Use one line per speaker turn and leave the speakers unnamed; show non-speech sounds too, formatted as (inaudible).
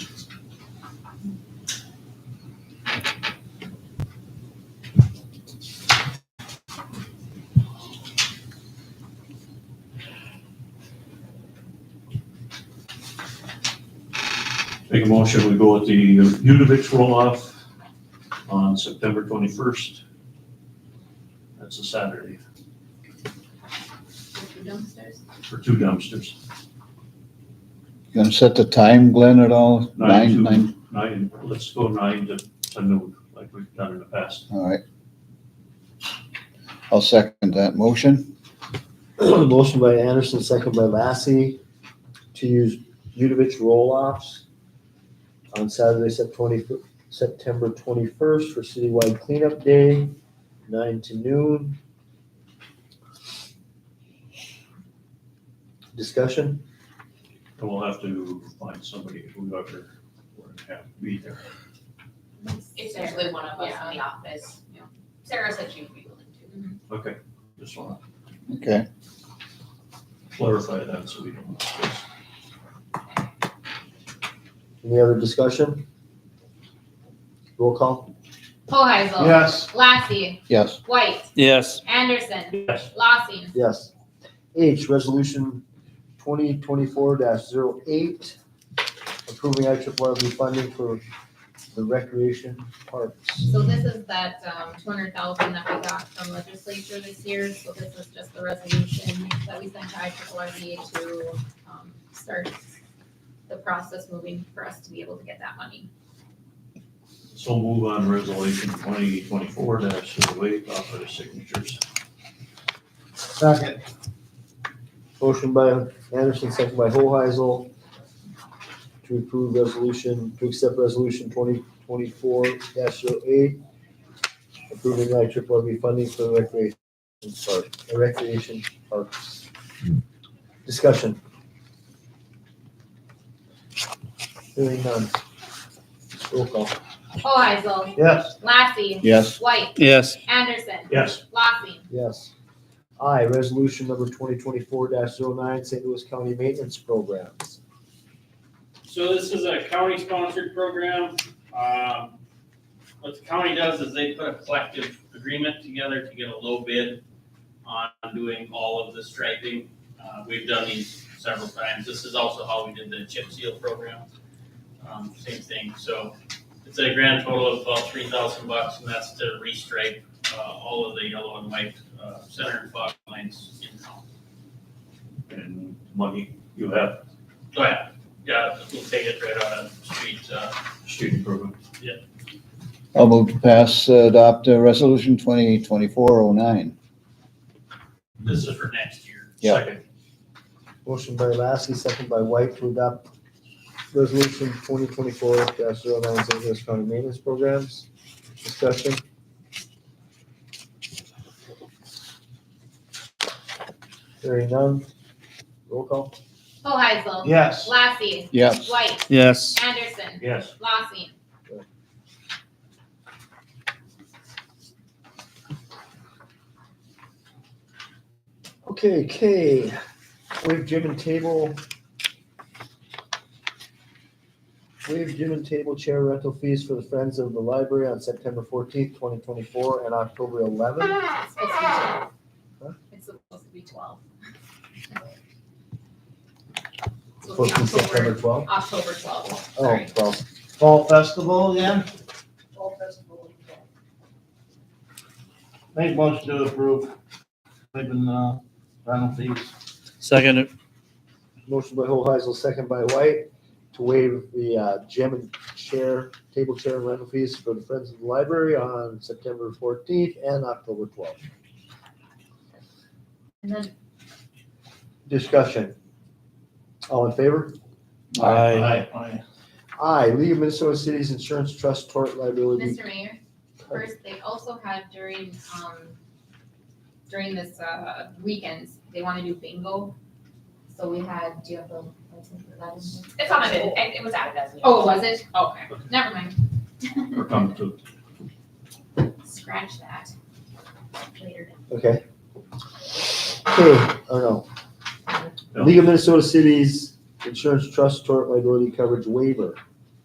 Make a motion, we go with the Udovich roll-off on September twenty-first. That's a Saturday
With the dumpsters?
for two dumpsters,
You gonna set the time, Glenn, at all?
Nine to-
Nine,
nine, let's go nine to, to noon, like we've done in the past.
all right. I'll second that motion.
(clears throat) Motion by Anderson, second by Lassie, to use Udovich roll-offs on Saturday, Sep- 20 September twenty-first for citywide cleanup day, nine to noon. Discussion?
And we'll have to find somebody, whoever, we're gonna have to be there.
It's usually one of us in the office. Sarah said she'd be willing to.
Okay, just wanna
Okay,
clarify that so we don't. miss this.
Any other discussion? Roll call?
Hoheisel. Yes. Lassie.
yes,
White.
yes,
Anderson.
Yes,
Lossing.
Yes. H, resolution twenty twenty-four 8 approving I triple R funding for the recreation parks.
So this is that, um, two hundred thousand that we got from legislature this year, so this is just the resolution that we sent to IRRB to, um, start the process moving for us to be able to get that money.
so move on resolution twenty twenty-four dash zero eight, author signatures.
Second. Motion by Anderson, second by Hoheisel to approve resolution, to accept resolution twenty twenty-four 8 approving I triple R funding for the recreation park, the recreation parks. Discussion. Hearing none. Roll call.
Hoheisel.
Yes.
Lassie.
yes,
White.
yes,
Anderson.
Yes,
Lossing.
Yes. I, resolution number twenty twenty-four 9 St. Louis County Maintenance Programs.
So this is a county-sponsored program. Um, What the county does is they put a collective agreement together to get a low bid on doing all of the striping. Uh, We've done these several times. This is also how we did the chip seal program. Um, Same thing, so it's a grand total of about three thousand bucks, and that's to restripe uh, all of the yellow and white uh, center and fog lines in town.
and money, you have
So yeah, yeah, we'll take it right out of street uh,
student program.
I'll move to pass, uh, adopt uh, resolution twenty twenty-four oh nine.
This is for next year.
Yeah.
Second.
Motion by Lassie, second by White to adopt resolution twenty twenty-four 9 St. Louis County Maintenance Programs. Discussion. Hearing none. Roll call.
Hoheisel.
Yes.
Lassie.
Yes,
White.
yes,
Anderson.
Yes,
Lossing.
Okay, K, waive gym and table. Waive gym and table chair rental fees for the Friends of the Library on September fourteenth, twenty twenty-four and October eleventh.
It's supposed to be twelve. It's supposed to be twelve. It's supposed to
Supposed to
be
be September
October,
twelfth.
October twelve,
Oh,
sorry.
well, Fall Festival again?
Fall festival weekend.
Make motion to approve, waiving, uh, rental fees.
second, it.
Motion by Hoheisel, second by White, to waive the uh, gym and chair, table chair and rental fees for the Friends of the Library on September fourteenth and October twelfth.
And then
Discussion. All in favor?
aye,
Aye.
I, League of Minnesota Cities Insurance Trust Tort Liability.
Mr. Mayor, first, they also had during, um, during this, uh, weekends, they wanna do bingo. So we had, do you have the license for that? It's on it, it, it was added as. Oh, was it? Okay, never mind,
we're coming to,
scratch that later.
Okay. Okay, oh
No.
no. League of Minnesota Cities Insurance Trust Tort Liability Coverage Waiver.